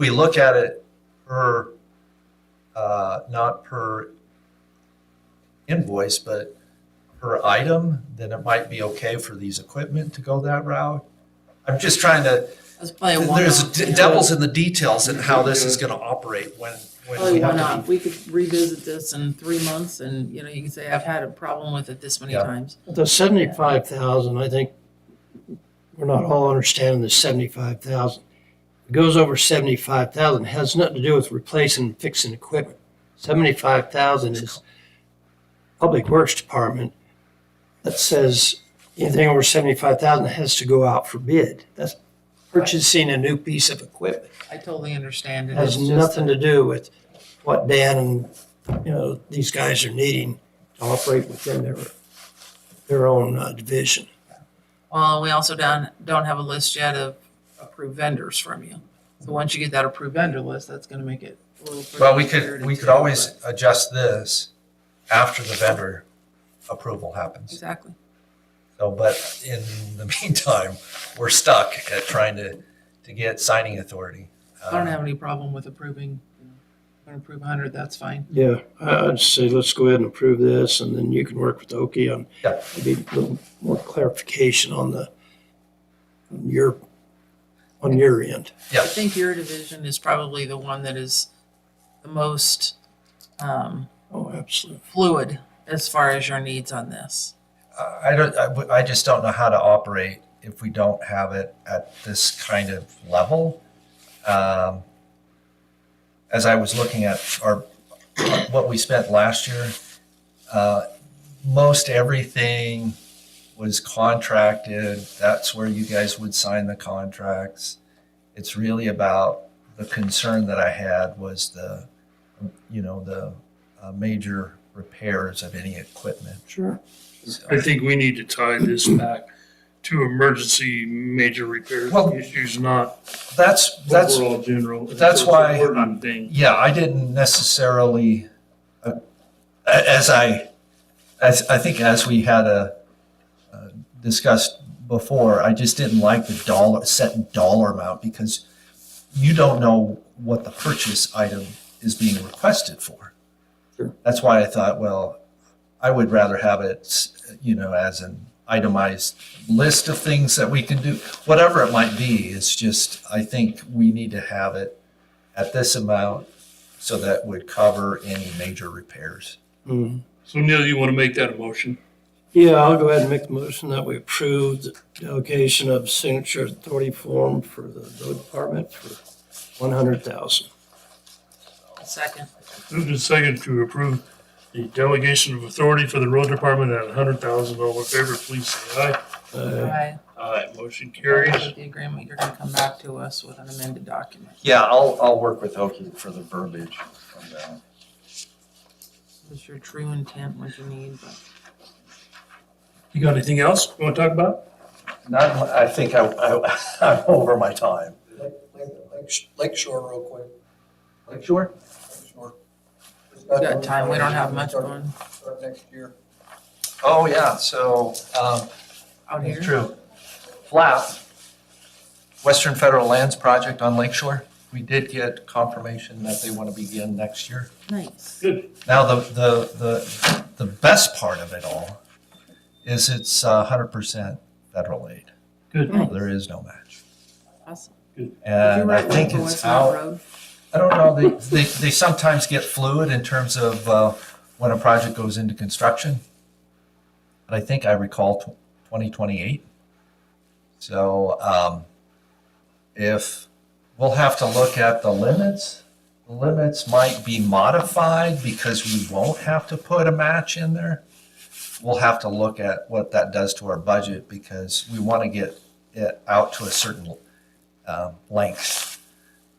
we look at it per, uh, not per invoice, but per item, then it might be okay for these equipment to go that route. I'm just trying to, That's probably a one-off. there's yeah. d- devils in the details and how this is gonna operate when, when Probably we have one-off. to We could revisit this in three months and, you know, you can say, I've had a problem with it this many Yeah. times. The seventy-five thousand, I think, we're not all understanding the seventy-five thousand. It goes over seventy-five thousand, has nothing to do with replacing and fixing equipment. Seventy-five thousand is Public Works Department that says anything over seventy-five thousand has to go out for bid. That's purchasing a new piece of equipment. I totally understand It it. Has It's just nothing to do with what Dan and, you know, these guys are needing to operate within their, their own uh, division. Well, we also don't, don't have a list yet of approved vendors from you. So once you get that approved vendor list, that's gonna make it a little. pretty Well, we clear could, to we could tell, always but- adjust this after the vendor approval happens. Exactly. So, but in the meantime, we're stuck at trying to, to get signing authority. Uh, I don't have any problem with approving, you know, if I approve hundred, that's fine. Yeah, I- I'd say let's go ahead and approve this, and then you can work with Oki on Yeah. maybe a little more clarification on the, on your, on your end. I think your division is probably the one that is the most, um, Oh, absolutely. fluid as far as your needs on this. Uh, I don't, I, w- I just don't know how to operate if we don't have it at this kind of level. Um, As I was looking at our, what we spent last year, uh, most everything was contracted. That's where you guys would sign the contracts. It's really about, the concern that I had was the, you know, the uh, major repairs of any equipment. Sure. So- I think we need to tie this back to emergency major repairs Well- issues, not That's, that's, overall general. that's why- I'm thinking. yeah, I didn't necessarily, uh, a- as I, as, I think as we had a, uh, discussed before, I just didn't like the dollar, set dollar amount because you don't know what the purchase item is being requested for. Sure. That's why I thought, well, I would rather have it, s- you know, as an itemized list of things that we can do. Whatever it might be, it's just, I think we need to have it at this amount so that would cover any major repairs. So Neil, you want to make that a motion? Yeah, I'll go ahead and make the motion that we approve the delegation of signature authority form for the road department for one hundred thousand. Second, Moved and second to approve the delegation of authority for the road department at hundred thousand. All in favor, please say aye. Uh, I, Aye, motion carries. with the agreement, you're gonna come back to us with an amended document. Yeah, I'll, I'll work with Oki for the verbiage. on that. What's your true intent, what you need, but. You got anything else you want to talk about? Not, mu- I think I, I, I'm over my time. Lake- Lake, Lake Shore real quick, Like, sure. Lake Shore. We got time, we don't have much going Start next year. Oh, yeah, so, um, out it's here. true. FLAP, Western Federal Lands Project on Lake Shore, we did get confirmation that they want to begin next year. Nice. Good. Now, the, the, the, the best part of it all is it's a hundred percent federal aid. Good. Oh, There is no match. Awesome. Did you And I write one think for it's West Mountain out, Road? I don't know, they, they, they sometimes get fluid in terms of, uh, when a project goes into construction. But I think I recall twenty twenty-eight. So, um, if, we'll have to look at the limits. The Limits might be modified because we won't have to put a match in there. We'll have to look at what that does to our budget because we want to get it out to a certain, um, length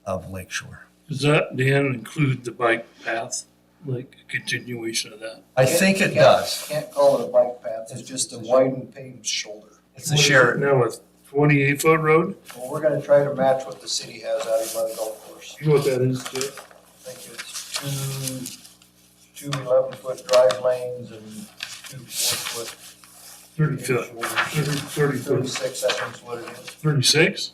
of Lake Shore. Does that, Dan, include the bike path, like a continuation of that? I think it Can't- does. Can't call it a bike path, it's just a widened paved shoulder. It's a shared, Now a twenty-eight foot road? Well, we're gonna try to match what the city has out here by the golf course. You know what that is, Jeff? I think it's two, two eleven foot drive lanes and two four foot. Thirty foot, shoulders. thirty, thirty foot, Thirty-six, I think is what it is. thirty-six?